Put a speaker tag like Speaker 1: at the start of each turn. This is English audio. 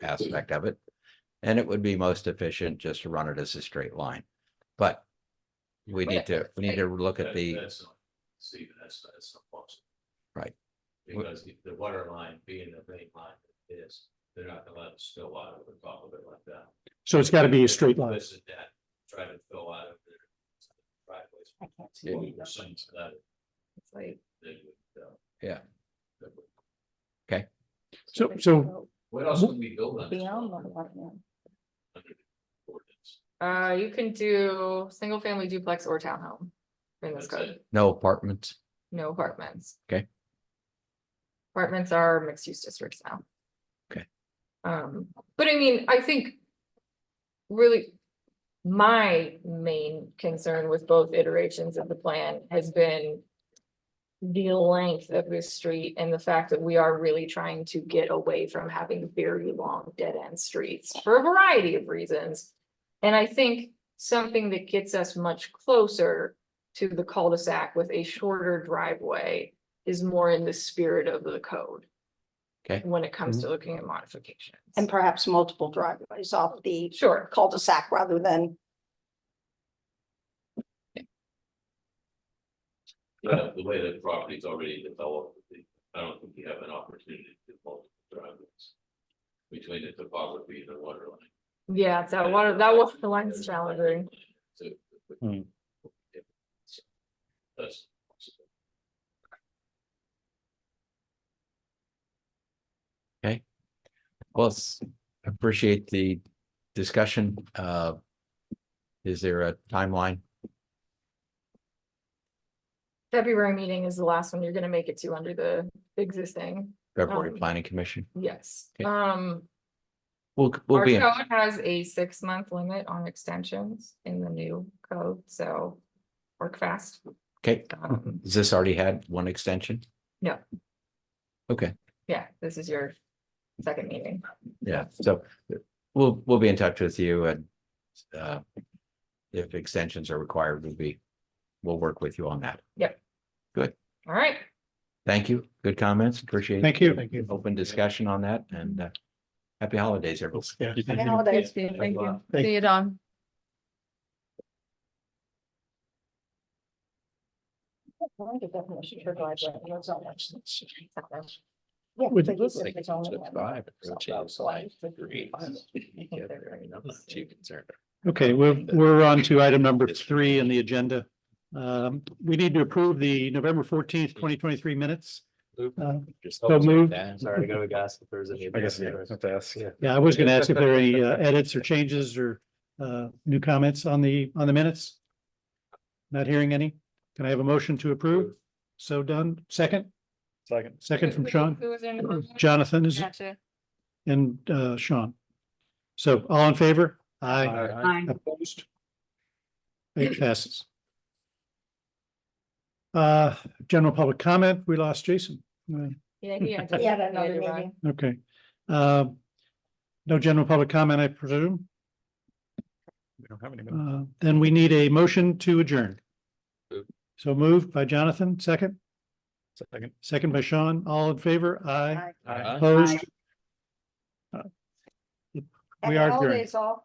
Speaker 1: aspect of it. And it would be most efficient just to run it as a straight line. But we need to, we need to look at
Speaker 2: That-
Speaker 1: the,
Speaker 2: that's not- Stephen, that's, that's not possible.
Speaker 1: Right.
Speaker 2: Because the- the water line being the main line it is, they're not gonna let us spill out of the top of it like that.
Speaker 3: So it's got to be a straight line.
Speaker 2: This and that, try to fill out of their driveways.
Speaker 4: I can't see
Speaker 2: Well,
Speaker 4: it.
Speaker 2: there's some to that,
Speaker 4: It's like-
Speaker 2: they would, uh,
Speaker 1: Yeah.
Speaker 2: that would-
Speaker 3: So- so-
Speaker 2: What else can we build on? this
Speaker 4: Beyond the
Speaker 2: property
Speaker 4: lot line.
Speaker 2: under the ordinance?
Speaker 5: Uh, you can do single family duplex or townhome in this
Speaker 2: That's
Speaker 5: code,
Speaker 1: no apartments.
Speaker 5: no apartments.
Speaker 1: Okay.
Speaker 5: Apartments are mixed use districts now.
Speaker 1: Okay.
Speaker 5: Um, but I mean, I think. Really. My main concern with both iterations of the plan has been. The length of this street and the fact that we are really trying to get away from having very long dead end streets for a variety of reasons. And I think something that gets us much closer to the cul-de-sac with a shorter driveway is more in the spirit of the code.
Speaker 1: Okay.
Speaker 5: When it comes to looking at modifications.
Speaker 4: And perhaps multiple driveways off the
Speaker 5: Sure,
Speaker 4: cul-de-sac rather than,
Speaker 2: You know, Uh, the way the property's already developed, I don't think you have an opportunity to do multiple driveways. Between the topography and the water line.
Speaker 5: yeah, that water, that was the line's challenging.
Speaker 2: So-
Speaker 3: Hmm.
Speaker 2: That's.
Speaker 1: Well, s- appreciate the discussion. Uh, is there a timeline?
Speaker 5: February meeting is the last one you're gonna make it to under the existing,
Speaker 1: February
Speaker 5: Um,
Speaker 1: Planning Commission?
Speaker 5: yes.
Speaker 1: Okay.
Speaker 5: Um,
Speaker 1: We'll, we'll
Speaker 5: our
Speaker 1: be, in.
Speaker 5: code has a six-month limit on extensions in the new code, so work fast.
Speaker 1: okay.
Speaker 5: Um,
Speaker 1: Has this already had one extension?
Speaker 5: No.
Speaker 1: Okay,
Speaker 5: Yeah, this is your second meeting.
Speaker 1: yeah, so we'll, we'll be in touch with you and uh, if extensions are required, we'll be, we'll work with you on that.
Speaker 5: All right,
Speaker 1: Thank you. Good comments. Appreciate it.
Speaker 3: Thank you. Thank you.
Speaker 1: open discussion on that and uh, happy holidays, everyone.
Speaker 3: Yeah.
Speaker 4: Happy holidays.
Speaker 5: thank you.
Speaker 3: Thank-
Speaker 5: See you, Don.
Speaker 4: Well, the definition for driveway, and it's all much- Yeah,
Speaker 3: Would-
Speaker 4: but you said it's only one.
Speaker 3: Okay, we're, we're on to item number three in the agenda. Um, we need to approve the November fourteenth, twenty twenty-three minutes. Uh, So moved.
Speaker 6: Sorry, to go to ask if there's any.
Speaker 7: I guess, yeah, have to ask.
Speaker 3: Yeah, I was going to ask if there are any uh, edits or changes or, uh, new comments on the, on the minutes. Not hearing any. Can I have a motion to approve? So done. Second,
Speaker 7: Second.
Speaker 3: second from Sean.
Speaker 5: Who was in the room?
Speaker 3: Jonathan is,
Speaker 5: Gotcha.
Speaker 3: and, uh, Sean. So all in favor? Aye. Opposed? It passes. Uh, general public comment, we lost Jason. Uh,
Speaker 5: Yeah, he had to-
Speaker 4: Yeah, that another
Speaker 5: you're right.
Speaker 4: meeting.
Speaker 3: Okay. Uh, No general public comment, I presume.
Speaker 7: We don't have any minutes.
Speaker 3: Uh, Then we need a motion to adjourn.
Speaker 2: Move.
Speaker 3: So moved by Jonathan, second,
Speaker 7: Second.
Speaker 3: second by Sean, all in favor? Aye.
Speaker 4: Aye.
Speaker 3: Opposed? Uh,
Speaker 4: Happy
Speaker 3: We are adjourned.
Speaker 4: holidays all.